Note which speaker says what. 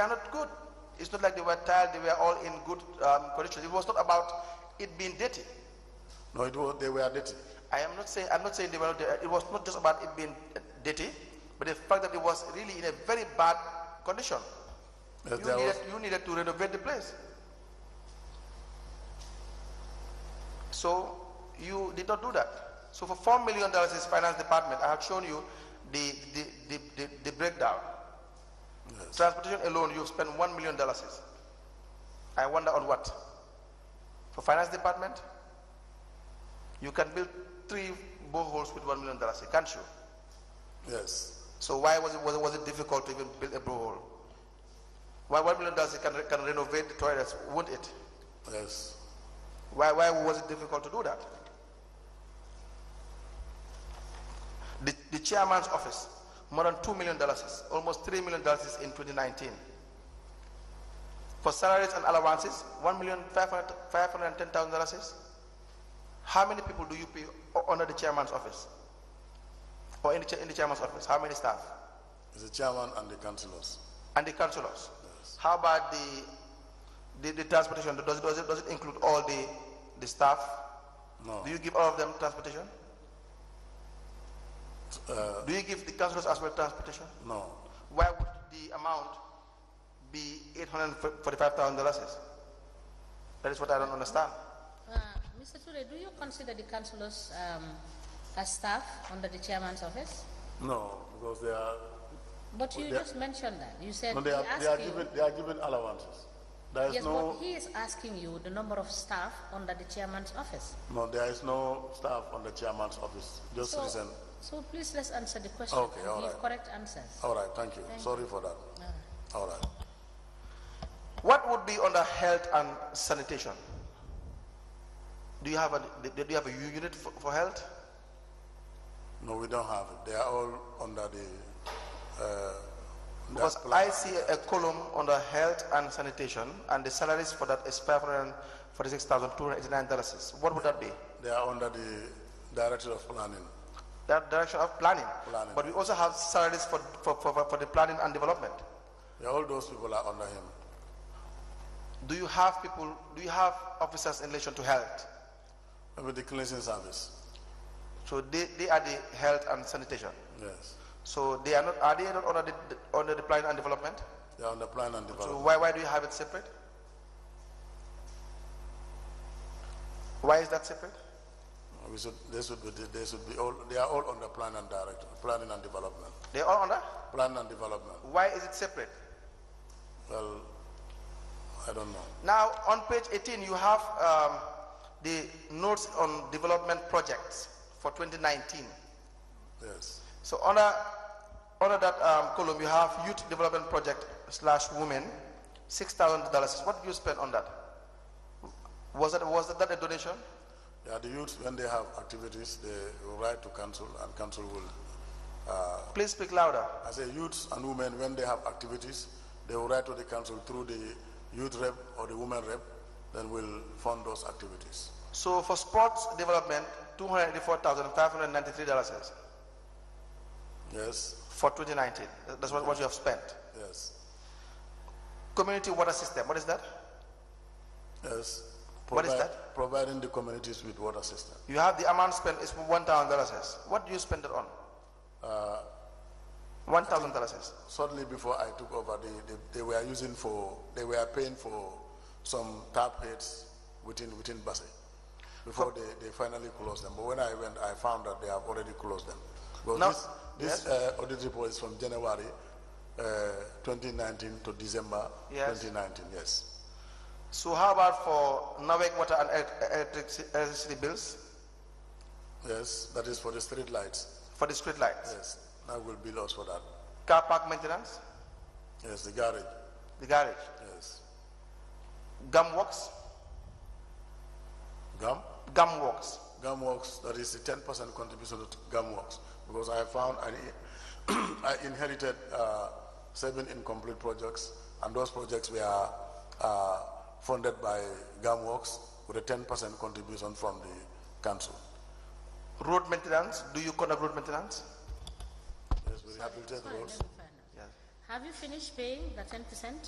Speaker 1: are not good. It's not like they were tired, they were all in good um, condition. It was not about it being dirty.
Speaker 2: No, it was, they were dirty.
Speaker 1: I am not saying, I'm not saying they were not, uh, it was not just about it being uh, dirty, but the fact that it was really in a very bad condition.
Speaker 2: Yes,
Speaker 1: You
Speaker 2: there
Speaker 1: needed,
Speaker 2: was,
Speaker 1: you needed to renovate the place. So you did not do that. So for four million dollars is finance department. I have shown you the the, the, the, the breakdown. Transportation alone, you've spent one million dollars. I wonder on what? For finance department? You can build three boreholes with one million dollars, can't you?
Speaker 2: yes.
Speaker 1: So why was it, was it, was it difficult to even build a borehole? Why one million dollars it can, re- can renovate the toilets, won't it?
Speaker 2: Yes.
Speaker 1: Why, why was it difficult to do that? The, the chairman's office, more than $2 million, is- almost $3 million is in 2019. For salaries and allowances, $1,510,000. is. How many people do you pay o- under the chairman's office? Or in the, cha- in the chairman's office? How many staff?
Speaker 2: The chairman and the councillors.
Speaker 1: And the councillors? How about the, the, the transportation? Does, it- does, it, does it include all the, the staff?
Speaker 2: No.
Speaker 1: Do you give all of them transportation?
Speaker 2: Uh,
Speaker 1: Do you give the councillors as well transportation?
Speaker 2: no.
Speaker 1: Why would the amount be eight hundred forty-five thousand dollars? That is what I don't understand.
Speaker 3: Uh, Mr. Ture, do you consider the councillors um, as staff under the chairman's office?
Speaker 2: No, because they are,
Speaker 3: But you
Speaker 2: Well, they-
Speaker 3: just mentioned that. You said
Speaker 2: no, they
Speaker 3: he
Speaker 2: are,
Speaker 3: asked
Speaker 2: they are
Speaker 3: you-
Speaker 2: given, they are given allowances. There is
Speaker 3: Yes,
Speaker 2: no,
Speaker 3: but he is asking you the number of staff under the chairman's office.
Speaker 2: no, there is no staff on the chairman's office. Just
Speaker 3: So,
Speaker 2: listen.
Speaker 3: so please let's answer the question.
Speaker 2: Okay,
Speaker 3: and
Speaker 2: all
Speaker 3: Give
Speaker 2: right.
Speaker 3: correct answers.
Speaker 2: All right, thank you. Sorry for that. All right.
Speaker 1: What would be under health and sanitation? Do you have a, do you have a u- unit for, for health?
Speaker 2: No, we don't have it. They are all under the, uh, that
Speaker 1: Because
Speaker 2: plan.
Speaker 1: I see a column under health and sanitation and the salaries for that is five hundred and forty-six thousand two hundred eighty-nine dollars. What would that be?
Speaker 2: They are under the director of planning.
Speaker 1: that direction of planning.
Speaker 2: Planning.
Speaker 1: But we also have salaries for, for, for, for the planning and development.
Speaker 2: Yeah, All those people are under him.
Speaker 1: Do you have people, do you have officers in relation to health?
Speaker 2: Maybe the cleansing service.
Speaker 1: So they, they are the health and sanitation.
Speaker 2: Yes.
Speaker 1: So they are not, are they not under the, under the planning and development?
Speaker 2: They are under plan and
Speaker 1: So
Speaker 2: development.
Speaker 1: why, why do you have it separate? Why is that separate?
Speaker 2: We should, they should be, they should be all, they are all under plan and director, planning and development.
Speaker 1: They're all under?
Speaker 2: Plan and development.
Speaker 1: Why is it separate?
Speaker 2: Well, I don't know.
Speaker 1: Now, on page 18, you have um, the notes on development projects for 2019.
Speaker 2: Yes.
Speaker 1: So under, under that um, column, you have youth development project slash women, six thousand dollars. What did you spend on that? Was that was that a donation?
Speaker 2: Yeah, the youth, when they have activities, they will write to council and council will,
Speaker 1: Please speak louder.
Speaker 2: I say youths and women, when they have activities, they will write to the council through the youth rep or the women rep, then we'll fund those activities.
Speaker 1: So for sports development, two hundred eighty-four thousand five hundred ninety-three dollars
Speaker 2: Yes,
Speaker 1: for 2019. That's what, what you have spent.
Speaker 2: yes,
Speaker 1: Community water system. What is that?
Speaker 2: yes.
Speaker 1: What is
Speaker 2: Provide-
Speaker 1: that?
Speaker 2: Providing the communities with water system.
Speaker 1: You have the amount spent is one thousand dollars. What do you spend it on? One thousand dollars.
Speaker 2: Suddenly before I took over, they, they, they were using for, they were paying for some tap heads within, within Basay. Before they, they finally closed them. But when I went, I found that they have already closed them. Because
Speaker 1: No.
Speaker 2: this, this uh, audit report is from January, uh, 2019 to December
Speaker 1: Yes.
Speaker 2: 2019, yes.
Speaker 1: So how about for Norweg water and elec- electric- electricity bills
Speaker 2: Yes, that is for the street lights.
Speaker 1: for the street lights,
Speaker 2: Yes, that will be lost for that.
Speaker 1: car park maintenance,
Speaker 2: Yes, the garage,
Speaker 1: the garage,
Speaker 2: yes.
Speaker 1: gum works,
Speaker 2: Gum?
Speaker 1: gum works.
Speaker 2: Gum Works, that is the ten percent contribution to Gum Works, because I found, I, I inherited, uh, seven incomplete projects, and those projects were, uh, funded by Gum Works with a ten percent contribution from the council.
Speaker 1: Road maintenance, do you conduct road maintenance?
Speaker 2: Yes, we rehabilitate
Speaker 3: Fine, let
Speaker 2: roads.
Speaker 3: me find out.
Speaker 1: Yes.
Speaker 3: Have you finished paying the ten percent?